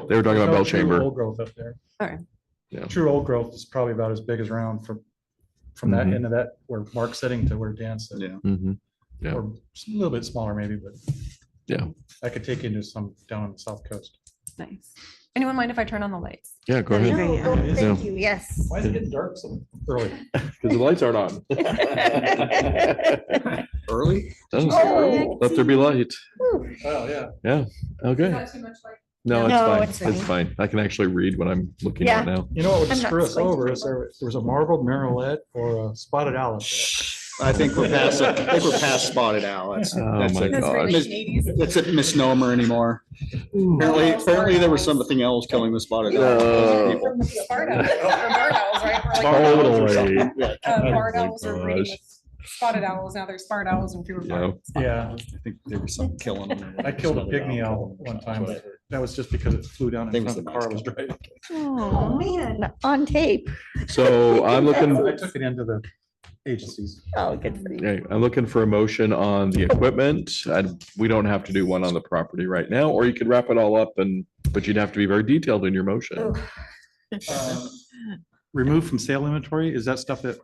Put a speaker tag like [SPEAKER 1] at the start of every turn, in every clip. [SPEAKER 1] Bell.
[SPEAKER 2] They were talking about
[SPEAKER 1] no
[SPEAKER 2] bell
[SPEAKER 1] true
[SPEAKER 2] chamber.
[SPEAKER 1] Old growth up there.
[SPEAKER 3] All right.
[SPEAKER 2] Yeah.
[SPEAKER 1] True old growth is probably about as big as around from, from that
[SPEAKER 2] Mhm.
[SPEAKER 1] end of that, where Mark's sitting to where Dan's sitting.
[SPEAKER 4] Yeah.
[SPEAKER 2] Mhm. Yeah.
[SPEAKER 1] Or s- a little bit smaller maybe, but.
[SPEAKER 2] Yeah.
[SPEAKER 1] I could take you into some down on the south coast.
[SPEAKER 3] Nice. Anyone mind if I turn on the lights?
[SPEAKER 2] Yeah, go
[SPEAKER 3] Yeah.
[SPEAKER 2] ahead.
[SPEAKER 3] Very
[SPEAKER 5] No,
[SPEAKER 2] good.
[SPEAKER 5] no, Oh, Thank you, yes.
[SPEAKER 1] Why is it getting dark so early?
[SPEAKER 2] Because the lights aren't on.
[SPEAKER 4] Early?
[SPEAKER 2] Doesn't-
[SPEAKER 5] Oh.
[SPEAKER 2] Let there be light.
[SPEAKER 5] Whew.
[SPEAKER 1] Oh, yeah.
[SPEAKER 2] Okay.
[SPEAKER 3] too much light?
[SPEAKER 2] No,
[SPEAKER 5] No,
[SPEAKER 2] it's
[SPEAKER 5] it's
[SPEAKER 2] fine. It's fine. I can actually read what I'm looking at now.
[SPEAKER 1] You know what would
[SPEAKER 5] I'm not
[SPEAKER 1] screw us
[SPEAKER 5] going to
[SPEAKER 1] over
[SPEAKER 5] do
[SPEAKER 1] is there, there was a marbled marrowlet or a spotted owl. up there.
[SPEAKER 4] I think we're past, I think we're past spotted owl. That's,
[SPEAKER 2] Oh
[SPEAKER 4] that's
[SPEAKER 2] my
[SPEAKER 4] a-
[SPEAKER 2] God. Gosh.
[SPEAKER 4] that's a misnomer anymore. Apparently, apparently there was something else killing the spotted
[SPEAKER 2] No.
[SPEAKER 4] owl.
[SPEAKER 3] Oh, Spotted
[SPEAKER 2] Totally.
[SPEAKER 4] Yeah,
[SPEAKER 3] uh, owls are breeding
[SPEAKER 2] Oh gosh.
[SPEAKER 3] with spotted owls. Now there's spotted owls and fewer.
[SPEAKER 2] Yeah.
[SPEAKER 1] Yeah,
[SPEAKER 4] I think there was something killing them.
[SPEAKER 1] I killed a pygmy owl one time, but that was just because it flew down
[SPEAKER 4] I think
[SPEAKER 1] in
[SPEAKER 4] it was
[SPEAKER 1] front of the
[SPEAKER 4] the
[SPEAKER 1] car I
[SPEAKER 4] mouse
[SPEAKER 1] was driving.
[SPEAKER 5] Oh, man, on tape.
[SPEAKER 2] So I'm looking,
[SPEAKER 1] I took it into the agencies.
[SPEAKER 5] Oh, good for you.
[SPEAKER 2] okay, I'm looking for a motion on the equipment. I, we don't have to do one on the property right now, or you could wrap it all up and, but you'd have to be very detailed in your motion.
[SPEAKER 1] Um, Removed from sale inventory, is that stuff that,
[SPEAKER 2] Uh,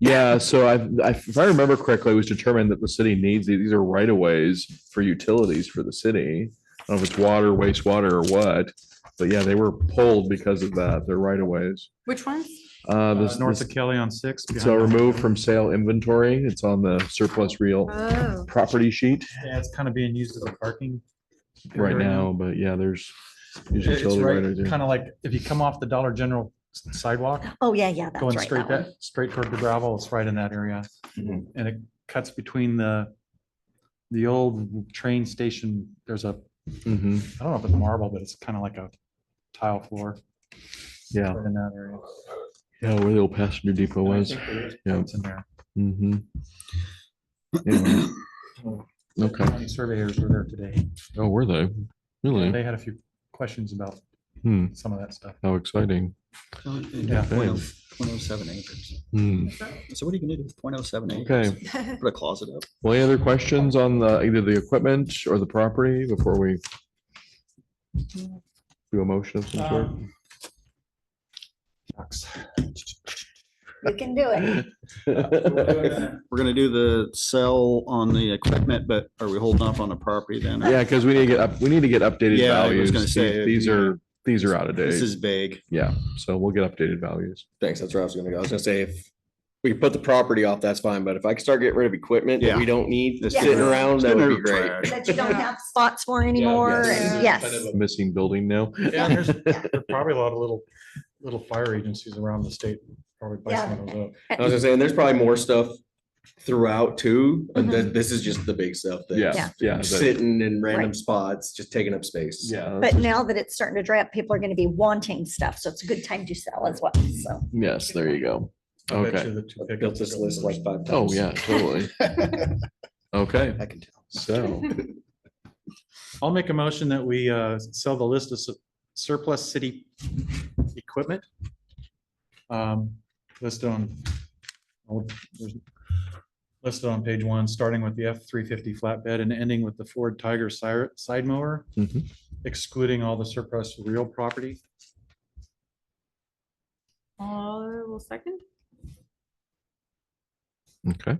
[SPEAKER 2] Yeah, so I, I, if I remember correctly, it was determined that the city needs, these These are right of ways for utilities for the city. I don't know if it's water, wastewater or what, but yeah, they were pulled because of that. They're right of ways.
[SPEAKER 3] Which ones?
[SPEAKER 2] Uh,
[SPEAKER 1] uh,
[SPEAKER 2] this,
[SPEAKER 1] north
[SPEAKER 2] this,
[SPEAKER 1] of Kelly on six? behind
[SPEAKER 2] so
[SPEAKER 1] the-
[SPEAKER 2] removed from sale inventory. It's on the surplus real
[SPEAKER 5] Oh,
[SPEAKER 2] property sheet
[SPEAKER 1] Yeah, it's kind of being used as a parking.
[SPEAKER 2] right
[SPEAKER 1] area
[SPEAKER 2] now, but yeah, there's. there's
[SPEAKER 1] It- It's
[SPEAKER 2] utility right
[SPEAKER 1] right,
[SPEAKER 2] there.
[SPEAKER 1] kind of like if you come off the Dollar General s- sidewalk,
[SPEAKER 5] oh, yeah, yeah, that's right.
[SPEAKER 1] going straight
[SPEAKER 5] that one.
[SPEAKER 1] that, straight toward the gravel, it's right in that area.
[SPEAKER 2] Mhm.
[SPEAKER 1] And it cuts between the, the old train station, there's a,
[SPEAKER 2] Mhm.
[SPEAKER 1] I don't know if it's marble, but it's kind of like a tile floor
[SPEAKER 2] Yeah,
[SPEAKER 1] right in that area.
[SPEAKER 2] yeah, where the old passenger depot was. yeah.
[SPEAKER 1] It's in there.
[SPEAKER 2] Mhm. Anyway. Okay,
[SPEAKER 1] County Surveyors were there today.
[SPEAKER 2] oh, were they? Really?
[SPEAKER 1] They had a few questions about
[SPEAKER 2] Hmm,
[SPEAKER 1] some of that stuff.
[SPEAKER 2] how exciting.
[SPEAKER 1] Yeah.
[SPEAKER 2] Okay.
[SPEAKER 4] Point oh seven acres.
[SPEAKER 2] Hmm,
[SPEAKER 4] So what are you gonna do with point oh seven acres?
[SPEAKER 2] Okay,
[SPEAKER 4] Put a closet up.
[SPEAKER 2] well, any other questions on the, either the equipment or the property before we do a motion of some sort?
[SPEAKER 4] Um,
[SPEAKER 5] You can do it.
[SPEAKER 4] We're gonna do the sell on the equipment, but are we holding off on the property then?
[SPEAKER 2] Yeah, because we need to get up, we need to get updated
[SPEAKER 4] Yeah, I
[SPEAKER 2] values.
[SPEAKER 4] was gonna
[SPEAKER 2] These-
[SPEAKER 4] say,
[SPEAKER 2] These
[SPEAKER 4] yeah.
[SPEAKER 2] are, these are out of
[SPEAKER 4] This
[SPEAKER 2] date.
[SPEAKER 4] is vague.
[SPEAKER 2] Yeah, so we'll get updated values.
[SPEAKER 6] Thanks. That's where I was gonna go. I was gonna say, if we could put the property off, that's fine, but if I could start getting rid of equipment that we don't need
[SPEAKER 4] This
[SPEAKER 6] sitting
[SPEAKER 5] Yeah.
[SPEAKER 6] around, that would be great.
[SPEAKER 4] Trash.
[SPEAKER 5] That you don't have spots for anymore, and yes.
[SPEAKER 2] Missing building now.
[SPEAKER 1] Yeah, there's there's probably a lot of little, little fire agencies around the state. Probably buy some of those up.
[SPEAKER 6] I was gonna say, and there's probably more stuff throughout too, but
[SPEAKER 5] Mhm.
[SPEAKER 6] th- this is just the big stuff. that's
[SPEAKER 2] Yeah, yeah. but-
[SPEAKER 6] Sitting in random
[SPEAKER 5] Right.
[SPEAKER 6] spots, just taking up space.
[SPEAKER 2] Yeah,
[SPEAKER 5] But now that it's starting to dry up, people are gonna be wanting stuff, so it's a good time to sell as well, so.
[SPEAKER 2] yes, there you go.
[SPEAKER 1] I bet
[SPEAKER 2] Okay.
[SPEAKER 1] you the two
[SPEAKER 6] I've
[SPEAKER 1] pickups
[SPEAKER 6] built this
[SPEAKER 1] are
[SPEAKER 6] list
[SPEAKER 1] going
[SPEAKER 6] like five
[SPEAKER 2] Oh,
[SPEAKER 6] times.
[SPEAKER 2] yeah, totally. Okay,
[SPEAKER 6] I can tell.
[SPEAKER 2] so,
[SPEAKER 1] I'll make a motion that we uh, sell the list of su- surplus city equipment. um, Listed on. oh, there's- Listed on page one, starting with the F three fifty flatbed and ending with the Ford Tiger sire- side mower,
[SPEAKER 2] mhm.
[SPEAKER 1] excluding all the surplus real property.
[SPEAKER 3] I will Uh, second.
[SPEAKER 2] okay.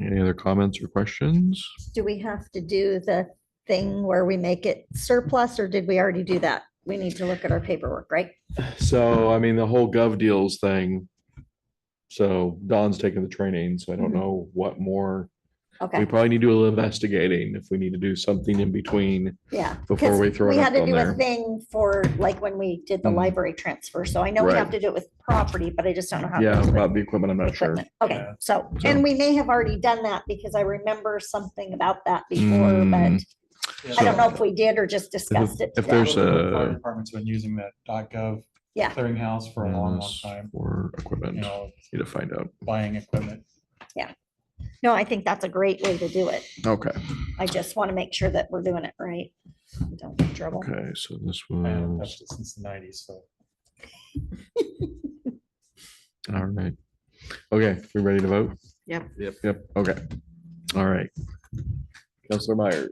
[SPEAKER 2] Any other comments or questions?
[SPEAKER 5] Do we have to do the thing where we make it surplus, or did we already do that? We need to look at our paperwork, right?
[SPEAKER 2] So, I mean, the whole gov deals thing. So Don's taking the training, so I don't
[SPEAKER 5] Mhm.
[SPEAKER 2] know what more. We
[SPEAKER 5] Okay,
[SPEAKER 2] probably need to do a little investigating if we need to do something in between.
[SPEAKER 5] yeah.
[SPEAKER 2] before
[SPEAKER 5] 'cause
[SPEAKER 2] we throw it
[SPEAKER 5] We
[SPEAKER 2] up
[SPEAKER 5] had to
[SPEAKER 2] on
[SPEAKER 5] do a
[SPEAKER 2] there.
[SPEAKER 5] thing for, like, when we did the
[SPEAKER 2] Mhm.
[SPEAKER 5] library transfer, so I know we have
[SPEAKER 2] Right.
[SPEAKER 5] to do it with property, but I just don't know how. it
[SPEAKER 2] Yeah,
[SPEAKER 5] works with-
[SPEAKER 2] about the equipment, I'm not sure.
[SPEAKER 5] equipment. Okay,
[SPEAKER 1] Yeah.
[SPEAKER 5] so,
[SPEAKER 2] So-
[SPEAKER 5] and we may have already done that because I remember something about that before,
[SPEAKER 2] Hmm.
[SPEAKER 5] but I don't know if we did or just discussed it.
[SPEAKER 2] if
[SPEAKER 5] today.
[SPEAKER 2] there's a-
[SPEAKER 1] Fire Department's been using that dot gov.
[SPEAKER 5] Yeah.
[SPEAKER 1] Clearinghouse for a long, long
[SPEAKER 2] Yes,
[SPEAKER 1] time,
[SPEAKER 2] Or
[SPEAKER 1] you
[SPEAKER 2] equipment,
[SPEAKER 1] know,
[SPEAKER 2] need to find out.
[SPEAKER 1] buying equipment.
[SPEAKER 5] No, I think that's a great way to do it.
[SPEAKER 2] Okay,
[SPEAKER 5] I just want to make sure that we're doing it right. Don't get in trouble.
[SPEAKER 2] okay, so this
[SPEAKER 1] I haven't
[SPEAKER 2] was,
[SPEAKER 1] touched it since the nineties, so.
[SPEAKER 2] all right. Okay, we ready to vote?
[SPEAKER 3] Yep.
[SPEAKER 2] Yep, okay. All right. Counselor Myers.